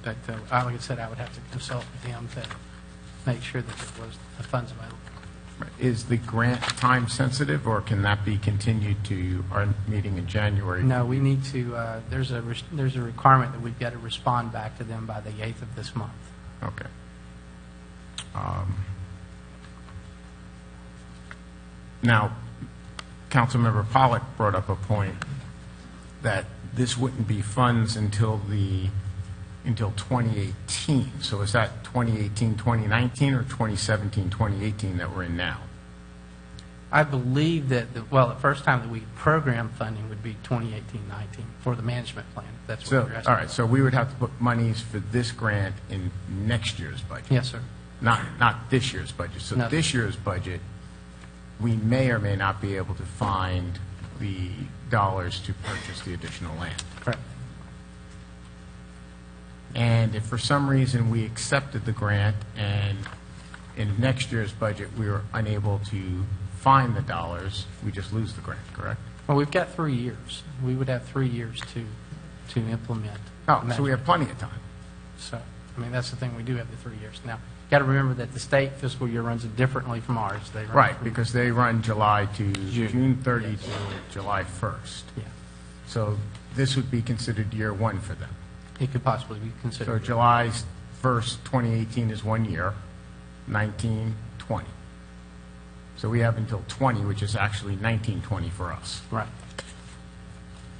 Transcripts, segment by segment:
aspect, though, Um, uh, I- like I said, I would have to consult with him to make sure that there was the funds available. Is the grant time sensitive, or can that be continued to our meeting in January? No, we need to, uh, there's a, res- there's a requirement that we've got to respond back to them by the 8th of this month. Okay. Um, Now, Councilmember Pollock brought up a point that this wouldn't be funds until the, until 2018. So is that 2018, 2019, or 2017, 2018 that we're in now? I believe that, the- well, the first time that we program funding would be 2018-19 for the management plan. if That's So, what you're asking. all right, so we would have to put monies for this grant in next year's budget? Yes, sir. Not, not this year's budget. So No. this year's budget, we may or may not be able to find the dollars to purchase the additional land. Correct. And if for some reason we accepted the grant and in next year's budget, we were unable to find the dollars, we just lose the grant, correct? Well, we've got three years. We would have three years to, to implement. Oh, so we management. have plenty of time. So, I mean, that's the thing, we do have the three years. Now, got to remember that the state fiscal year runs differently from ours. They run Right, from- because they run July to, June 30 to July 1st. Yeah, So this would be considered year one for them. it could possibly be So considered. July 1st, 2018 is one year, 19, 20. So we have until 20, which is actually 1920 for us. Right.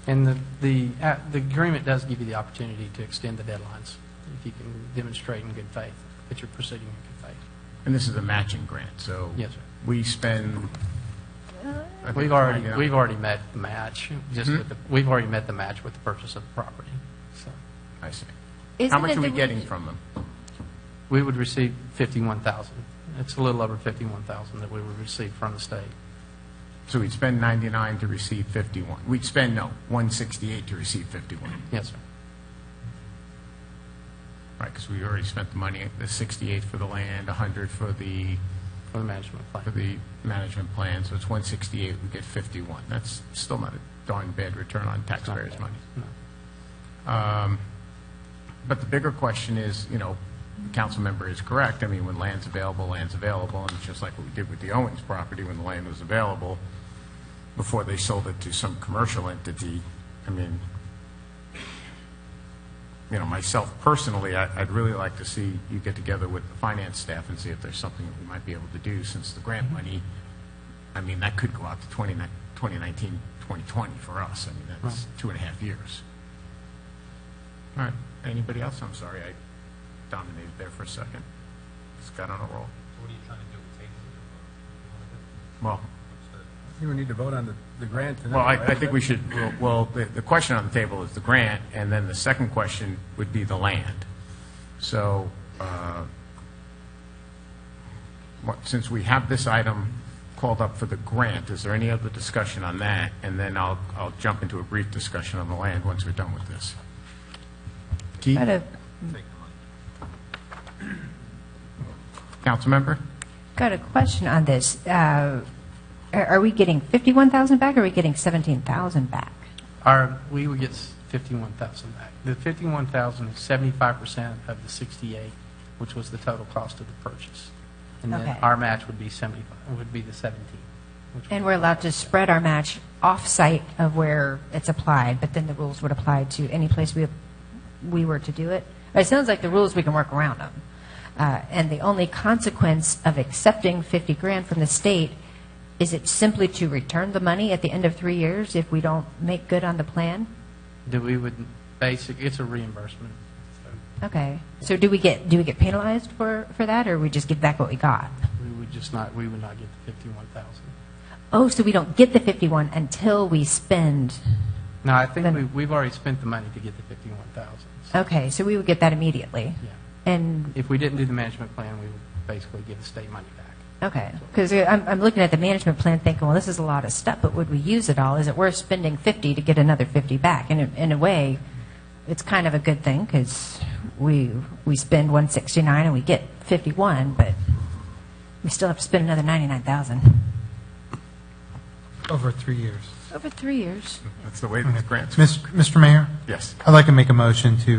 And the, the, uh, the agreement does give you the opportunity to extend the deadlines if you can demonstrate in good faith that you're proceeding in good faith. And this is a matching grant, so. Yes, sir. We spend. I think We've it's already, like, uh, we've already met the match, just with the, we've already met the match with the purchase of the property. So I see. How Isn't much it are we the- getting from them? we would receive 51,000. It's a little over 51,000 that we would receive from the state. So we'd spend 99 to receive 51. We'd spend, no, 168 to receive 51. Yes, sir. Right, because we already spent the money, the 68 for the land, 100 for the, For the management for plan. the management plan, so it's 168, we get 51. That's still not a darn bad return on taxpayers' money. No. But the bigger question is, you know, the council member is correct, I mean, when land's available, land's available, and it's just like what we did with the Owens property, when the land was available, before they sold it to some commercial entity, I mean, you know, myself personally, I- I'd really like to see you get together with the finance staff and see if there's something that we might be able to do, since the grant money, I mean, that could go out to 20 ni- 2019, 2020 for us, I mean, that's two and a half years. All right, anybody else? I'm sorry, I dominated there for a second. Just got on a roll. What are you trying to do, table it or? Well, You would need to vote on the, the grant tonight. well, I, right? I think we should, well, the, the question on the table is the grant, and then the second question would be the land. So, uh, what- since we have this item called up for the grant, is there any other discussion on that? And then I'll, I'll jump into a brief discussion on the land once we're done with this. Keith, Got a, councilmember? got a question on this. Uh, Are are we getting 51,000 back, or are we getting 17,000 back? Our, we would get s- 51,000 back. The 51,000 is 75% of the 68, which was the total cost of the purchase. And then Okay. our match would be 75, would be the 17. which would And be- we're allowed to spread our match off-site of where it's applied, but then the rules would apply to any place we, we were to do it? It sounds like the rules, we can work around them. Uh, And the only consequence of accepting 50 grand from the state, is it simply to return the money at the end of three years if we don't make good on the plan? That we would, basic, it's a reimbursement. Okay. So do we get, do we get penalized for, for that, or we just give back what we got? We would just not, we would not get the 51,000. Oh, so we don't get the 51 until we spend, No, I think Then- Oh. we, we've already spent the money to get the 51,000. So, okay, so we would get that immediately? Yeah. And, If we didn't do the management plan, we would basically give the state money back. okay, because I'm, I'm looking at the management plan thinking, well, this is a lot of stuff, but would we use it all? Is it worth spending 50 to get another 50 back? And in, in a way, it's kind of a good thing, because we, we spend 169 and we get 51, but we still have to spend another 99,000. Over three years. Over three years. That's the way these grants. Mis- Mr. Mayor, Yes. I'd like to make a motion to